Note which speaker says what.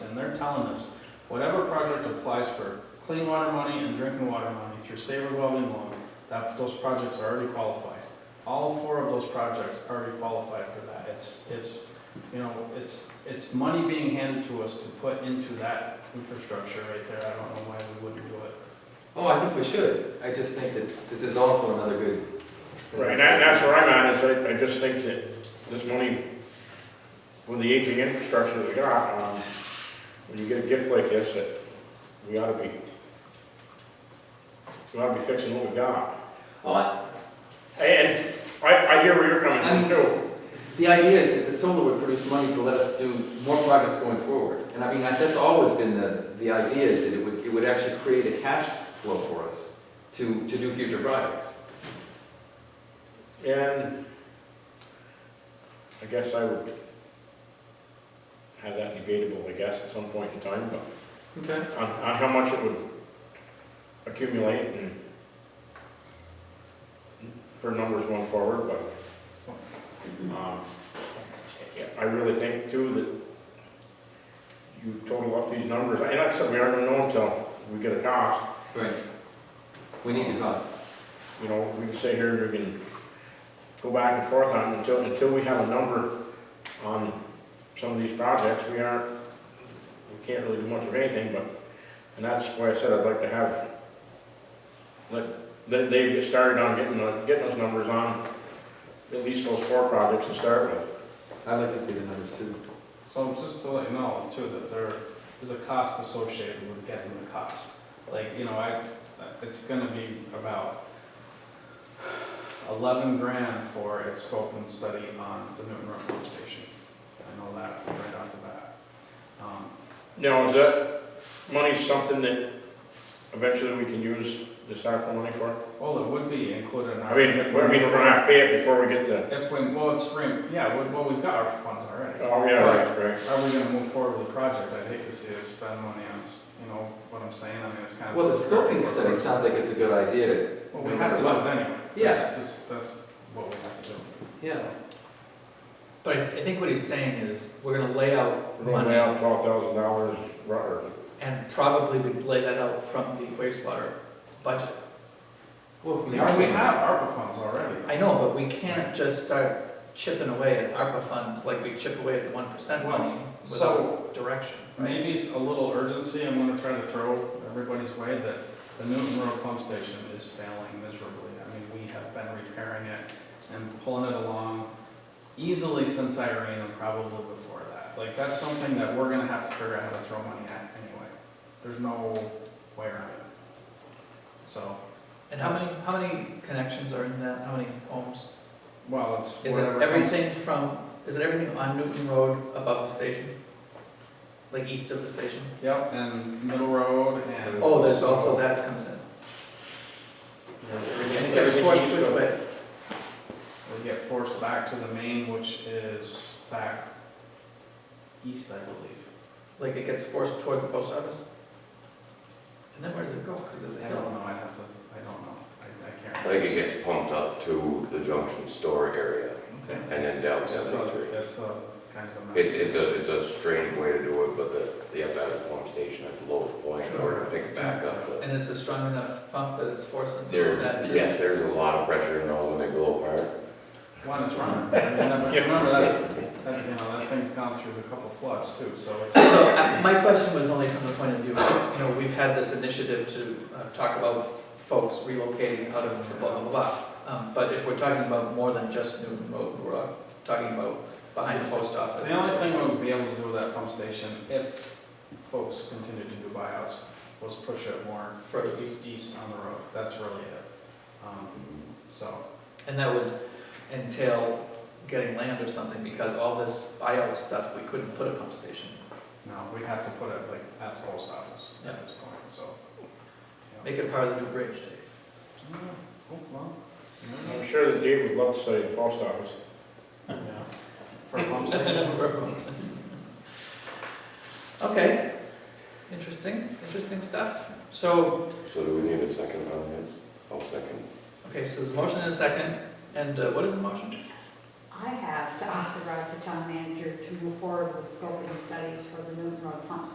Speaker 1: they're telling us, whatever project applies for clean water money and drinking water money through state revolving loan, that, those projects are already qualified. All four of those projects already qualify for that. It's, it's, you know, it's, it's money being handed to us to put into that infrastructure right there. I don't know why we wouldn't do it.
Speaker 2: Oh, I think we should. I just think that this is also another good.
Speaker 3: Right, and that- that's where I'm at, is I, I just think that this money, with the aging infrastructure that we got, um, when you get a gift like this, that we ought to be, we ought to be fixing what we got.
Speaker 2: Oh, I-
Speaker 3: And I, I hear where you're coming
Speaker 2: I mean-
Speaker 3: from too.
Speaker 2: the idea is that the solar would produce money to let us do more projects going forward. And I mean, I- that's always been the, the idea is that it would, it would actually create a cash flow for us to, to do future projects.
Speaker 3: And I guess I would have that debatable, I guess, at some point in time, but
Speaker 2: Okay.
Speaker 3: on, on how much it would accumulate and for numbers going forward, but, um, yeah, I really think too that you total up these numbers, and like I said, we aren't gonna know until we get a cost,
Speaker 2: Right. We need the cost.
Speaker 3: you know, we can sit here and we can go back and forth on, it until, until we have a number on some of these projects, we aren't, we can't really do much of anything, but, and that's why I said I'd like to have, let, let Dave get started on getting, the- getting those numbers on, at least those four projects to start with.
Speaker 2: I'd like to see the numbers too.
Speaker 1: So just to let you know too, that there is a cost associated with getting the cost. Like, you know, I, it's gonna be about eleven grand for a scope and study on the Newton Road pump station. I know that right off the bat. Um,
Speaker 3: Now, is that money something that eventually we can use the SARFA money for?
Speaker 1: Well, it would be included in our.
Speaker 3: I mean, if we're, I mean, if we're not pay it before we get the,
Speaker 1: If we, well, it's, re- yeah, we- well, we've got our funds already.
Speaker 3: oh, yeah, right, right.
Speaker 1: Are we gonna move forward with the project? I'd hate to see us spend money on, s- you know, what I'm saying, I mean, it's kind of.
Speaker 2: Well, the scoping study sounds like it's a good idea.
Speaker 1: Well, we have to do it anyway.
Speaker 2: Yeah.
Speaker 1: That's just, that's what we have to do.
Speaker 2: Yeah.
Speaker 4: But I I think what he's saying is, we're gonna lay out
Speaker 3: We're gonna lay
Speaker 4: money,
Speaker 3: out twelve thousand dollars, or
Speaker 4: and probably we'd lay that out from the wastewater budget.
Speaker 2: Well, from the
Speaker 1: Well, we
Speaker 2: ARPA-
Speaker 1: have ARPA funds already.
Speaker 4: I know, but we can't just start chipping away at ARPA funds like we chip away at the one percent money
Speaker 1: So-
Speaker 4: without direction, right?
Speaker 1: Maybe it's a little urgency, I'm gonna try to throw everybody's way that the Newton Road pump station is failing miserably. I mean, we have been repairing it and pulling it along easily since Irene and probably before that. Like, that's something that we're gonna have to figure out how to throw money at anyway. There's no way around it. So,
Speaker 4: And how many, how many connections are in that, how many homes?
Speaker 1: well, it's
Speaker 4: Is
Speaker 1: whatever
Speaker 4: it
Speaker 1: comes-
Speaker 4: everything from, is it everything on Newton Road above the station? Like east of the station?
Speaker 1: Yep, and Middle Road and.
Speaker 4: Oh, there's also that comes in.
Speaker 3: everything.
Speaker 4: There's
Speaker 3: everything
Speaker 4: four
Speaker 3: east of-
Speaker 4: switch way.
Speaker 1: We get forced back to the main, which is back east, I believe.
Speaker 4: like it gets forced toward the post office? And then where does it go? Because there's a
Speaker 1: I don't
Speaker 4: hill.
Speaker 1: know, I have to, I don't know, I, I can't.
Speaker 5: I think it gets pumped up to the junction store area
Speaker 4: Okay.
Speaker 5: and then down
Speaker 1: That's a,
Speaker 5: 73.
Speaker 1: that's a kind of a mess.
Speaker 5: It's, it's a, it's a strange way to do it, but the, you have to have a pump station at the lowest point in order to pick it back up to.
Speaker 4: And it's a strong enough pump that it's forcing
Speaker 5: There,
Speaker 4: that.
Speaker 5: yes, there's a lot of pressure in those when they blow apart.
Speaker 1: One is running, I mean, that-
Speaker 3: Yeah.
Speaker 1: remember that, that, you know, that thing's gone through a couple floods too, so it's,
Speaker 4: So I- my question was only from the point of view, of, you know, we've had this initiative to uh, talk about folks relocating out of blah, blah, blah. Um, But if we're talking about more than just Newton Road, we're uh, talking about behind the post office.
Speaker 1: the only thing we would be able to do with that pump station, if folks continued to do buyouts, was push it more
Speaker 4: Further east.
Speaker 1: east, east on the road, that's really it. Um, So,
Speaker 4: And that would entail getting land or something because all this buyout stuff, we couldn't put a pump station.
Speaker 1: No, we'd have to put it like at the post office
Speaker 4: Yeah.
Speaker 1: at this point, so. yeah.
Speaker 4: Make it part of the new bridge, Dave.
Speaker 1: Yeah, oh, well, yeah.
Speaker 3: I'm sure that Dave would love to say the post office.
Speaker 1: Yeah. For a pump station.
Speaker 4: Okay, interesting, interesting stuff. So,
Speaker 5: So do we need a second on this? I'll second.
Speaker 4: okay, so there's a motion and a second, and uh, what is the motion?
Speaker 6: I have to authorize the town manager to move forward with scoping studies for the Newton Road pump